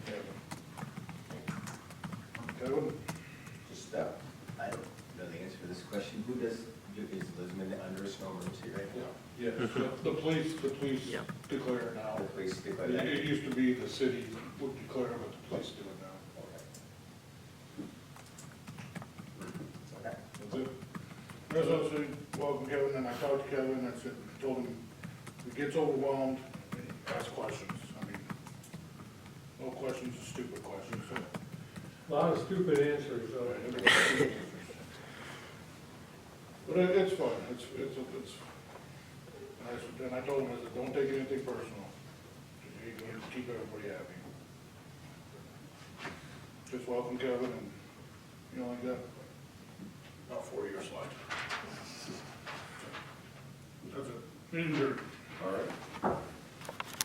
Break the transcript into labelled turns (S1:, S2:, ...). S1: code? Just that,
S2: uh, I don't know the answer to this question. Who does, is Lisbon under a snow emergency right
S1: yeah,
S2: now?
S1: yes, the- the police, the police
S3: Yep.
S1: declare now.
S2: The police do by
S1: It
S2: that?
S1: it used to be the city would declare, but the police do it now.
S2: Okay.
S1: That's it. There's also, welcome Kevin, and I talked to Kevin, I said, told him, if he gets overwhelmed, ask questions, I mean, no questions is stupid questions, so.
S4: Lot of stupid answers, though.
S1: But it, it's fine, it's, it's, it's, and I said- and I told him, I said, don't take anything personal, you're gonna keep everybody happy. Just welcome Kevin, and, you know, like that, about four years left. That's it, Meeting's adjourned.
S2: All right.